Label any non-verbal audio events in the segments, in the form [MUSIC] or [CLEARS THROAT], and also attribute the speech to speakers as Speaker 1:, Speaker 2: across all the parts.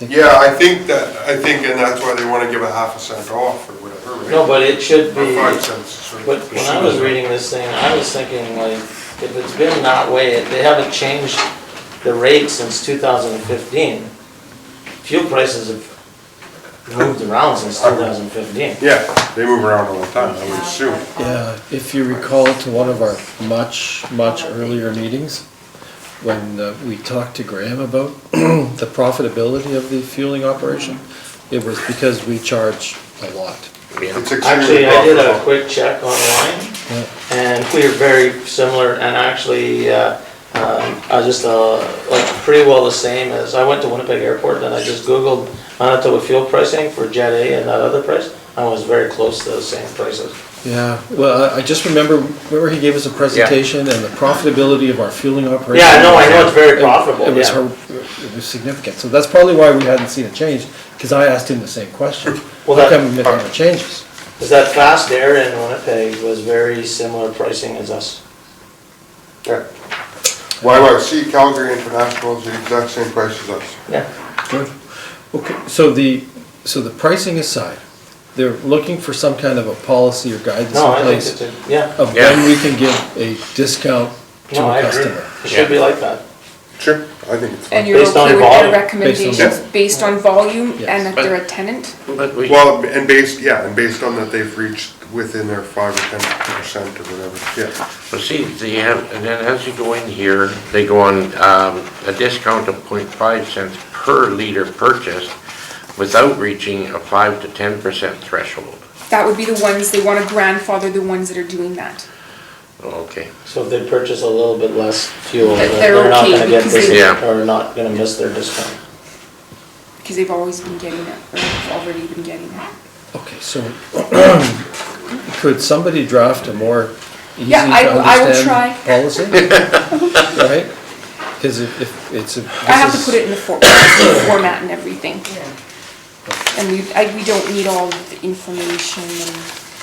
Speaker 1: Yeah, I think that, I think, and that's why they wanna give a half a cent off or whatever, right?
Speaker 2: No, but it should
Speaker 1: Or
Speaker 2: be,
Speaker 1: five cents. or-
Speaker 2: but when I was reading this thing, I was thinking like, if it's been that way, they haven't changed the rate since two thousand and fifteen. Fuel prices have moved around since two thousand and fifteen.
Speaker 1: Yeah, they move around all the time, I would assume.
Speaker 3: Yeah, if you recall to one of our much, much earlier meetings, when uh, we talked to Graham about [CLEARS THROAT] the profitability of the fueling operation, it was because we charge a lot.
Speaker 1: It's extremely
Speaker 2: Actually, I did a
Speaker 1: profitable.
Speaker 2: quick check online,
Speaker 3: Yeah.
Speaker 2: and we are very similar, and actually, uh, um, I was just, uh, like, pretty well the same as, I went to Winnipeg Airport, and I just Googled Manitoba fuel pricing for Jet A and that other price, I was very close to the same prices.
Speaker 3: Yeah, well, I- I just remember, remember he gave us a presentation and the profitability of our fueling operation?
Speaker 2: Yeah, no, I know it's very
Speaker 3: It-
Speaker 2: profitable,
Speaker 3: It was,
Speaker 2: yeah.
Speaker 3: hor- it was significant, so that's probably why we hadn't seen a change, because I asked him the same question.
Speaker 2: Well,
Speaker 3: How
Speaker 2: that-
Speaker 3: come it never changes?
Speaker 2: Because that fast air in Winnipeg was very similar pricing as us.
Speaker 1: Yeah. YYC Calgary International is the exact same price as us.
Speaker 2: Yeah.
Speaker 3: Good. Okay, so the, so the pricing aside, they're looking for some kind of a policy or guidance
Speaker 2: No,
Speaker 3: in
Speaker 2: I think it's,
Speaker 3: place
Speaker 2: a yeah,
Speaker 3: of when we can give a discount to
Speaker 2: no, I
Speaker 3: a
Speaker 2: agree.
Speaker 3: customer.
Speaker 2: It should be like that.
Speaker 1: Sure. I think it's
Speaker 4: And
Speaker 1: fine.
Speaker 4: you're
Speaker 2: Based on
Speaker 4: okay with
Speaker 2: volume.
Speaker 4: their
Speaker 3: Based
Speaker 4: recommendations based on volume
Speaker 3: Yes.
Speaker 4: and that they're a tenant?
Speaker 5: But we,
Speaker 1: Well, and based, yeah, and based on that they've reached within their five or ten percent or whatever, yeah.
Speaker 5: but see, they have, and then as you go in here, they go on, um, a discount of 0.5 cents per liter purchased without reaching a five to ten percent threshold.
Speaker 4: That would be the ones, they want to grandfather the ones that are doing that.
Speaker 5: Okay,
Speaker 2: So if they purchase a little bit less fuel,
Speaker 4: That
Speaker 2: then
Speaker 4: they're
Speaker 2: they're not
Speaker 4: okay
Speaker 2: gonna get
Speaker 4: because they-
Speaker 2: this,
Speaker 5: Yeah.
Speaker 2: or not gonna miss their discount.
Speaker 4: Because they've always been getting it, or have already been getting it.
Speaker 3: Okay, so [CLEARS THROAT] could somebody draft a more easy to
Speaker 4: Yeah, I- I will try.
Speaker 3: understand policy? Right? Because if, if it's a.
Speaker 4: I have to put it in the for- format and everything. And we, I, we don't need all of the information and,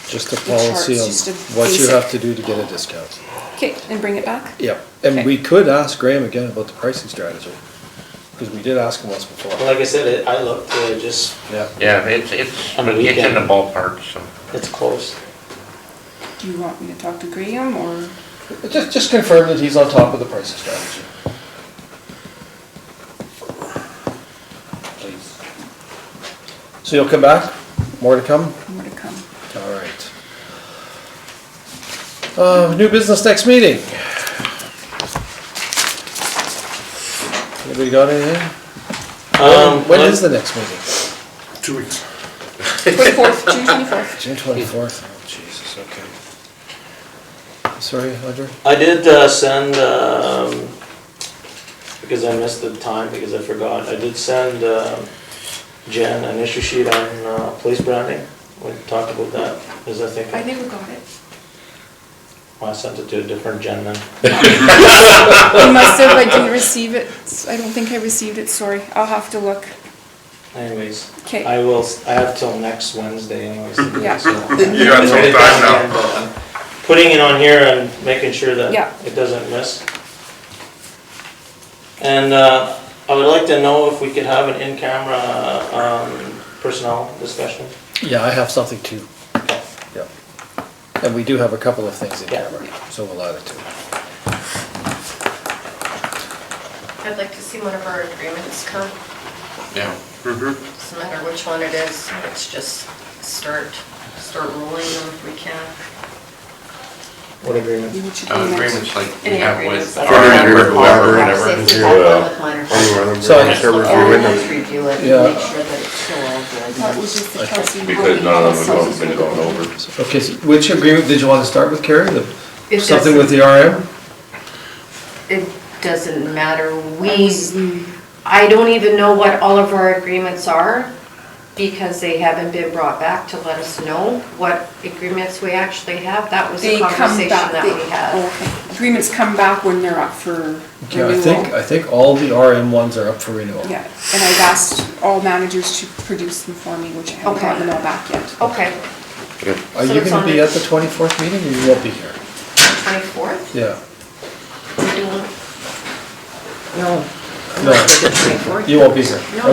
Speaker 3: Just a
Speaker 4: the charts,
Speaker 3: policy on
Speaker 4: just a
Speaker 3: what you
Speaker 4: basic-
Speaker 3: have to do to get a discount.
Speaker 4: okay, and bring it back?
Speaker 3: Yep, and
Speaker 4: Okay.
Speaker 3: we could ask Graham again about the pricing strategy, because we did ask him once before.
Speaker 2: Well, Like I said, it- I looked, uh, just,
Speaker 3: Yeah.
Speaker 5: yeah, it's, it's,
Speaker 2: On the
Speaker 5: it's in
Speaker 2: weekend.
Speaker 5: the ballpark, so.
Speaker 2: it's close.
Speaker 4: Do you want me to talk to Graham or?
Speaker 3: Just, just confirm that he's on top of the pricing strategy. Please. So you'll come back? More to come?
Speaker 4: More to come.
Speaker 3: All right. Uh, new business next meeting. Anybody got anything?
Speaker 2: Um,
Speaker 3: When
Speaker 2: like-
Speaker 3: is the next meeting?
Speaker 1: Two weeks.
Speaker 4: Twenty-fourth, June twenty-fourth.
Speaker 3: June twenty-fourth. Oh, Jesus, okay. Sorry, Audrey?
Speaker 2: I did uh, send, um, because I missed the time, because I forgot, I did send um, Jen an issue sheet on uh, police branding. We talked about that, because I
Speaker 4: I
Speaker 2: think,
Speaker 4: never got it.
Speaker 2: well, I sent it to a different Jen then.
Speaker 4: You must have, I didn't receive it. I don't think I received it, sorry. I'll have to look.
Speaker 2: Anyways,
Speaker 4: Okay.
Speaker 2: I will, s- I have till next Wednesday anyways. to do it,
Speaker 4: Yeah. [LAUGHS]
Speaker 2: so-
Speaker 1: You got some time now.
Speaker 2: Putting it on here and making sure that
Speaker 4: Yeah.
Speaker 2: it doesn't miss. And uh, I would like to know if we could have an in-camera um, personnel discussion.
Speaker 3: Yeah, I have something too. Yeah. And we do have a couple of things in
Speaker 2: Yeah.
Speaker 3: camera, so we'll add it to
Speaker 6: I'd like to see one of our agreements come,
Speaker 5: Yeah.
Speaker 6: doesn't matter which one it is, let's just start, start rolling them if we can.
Speaker 2: What agreement?
Speaker 4: Maybe it should be
Speaker 5: Uh,
Speaker 4: next.
Speaker 5: Agreements like we
Speaker 6: Any
Speaker 5: have
Speaker 6: agreements.
Speaker 5: with.
Speaker 6: that
Speaker 5: our
Speaker 6: are-
Speaker 1: Whatever, whatever,
Speaker 6: I'd say
Speaker 1: whatever.
Speaker 6: if we have one with minor-
Speaker 1: Anyway, I'm
Speaker 3: So-
Speaker 1: gonna
Speaker 6: Look at
Speaker 1: review
Speaker 6: it,
Speaker 1: it
Speaker 6: let's
Speaker 1: and-
Speaker 6: review it
Speaker 3: Yeah.
Speaker 6: and make sure that it's still all good.
Speaker 4: That was just the Kelsey.
Speaker 7: Because none of them have been going over.
Speaker 3: it. Okay, so which agreement did you want to start with, Carrie? The-
Speaker 6: It
Speaker 3: Something with the RM?
Speaker 6: It doesn't matter,
Speaker 4: I
Speaker 6: we,
Speaker 4: was-
Speaker 6: I don't even know what all of our agreements are because they haven't been brought back to let us know what agreements we actually have, that was
Speaker 4: They
Speaker 6: a
Speaker 4: come
Speaker 6: conversation
Speaker 4: back,
Speaker 6: that
Speaker 4: they,
Speaker 6: we had.
Speaker 4: oh, okay. Agreements come back when they're up for
Speaker 3: Okay, I think,
Speaker 4: renewal.
Speaker 3: I think all the RM ones are up for renewal.
Speaker 4: Yeah, and I've asked all managers to produce them for me, which I haven't
Speaker 6: Okay.
Speaker 4: gotten them all back yet.
Speaker 6: Okay,
Speaker 3: Are
Speaker 6: So
Speaker 3: you
Speaker 6: it's
Speaker 3: gonna
Speaker 6: on
Speaker 3: be
Speaker 6: the-
Speaker 3: at the twenty-fourth meeting or you won't be here?
Speaker 6: 24th,
Speaker 3: Yeah,
Speaker 6: we're doing. No.
Speaker 3: no, you won't be here.
Speaker 6: No,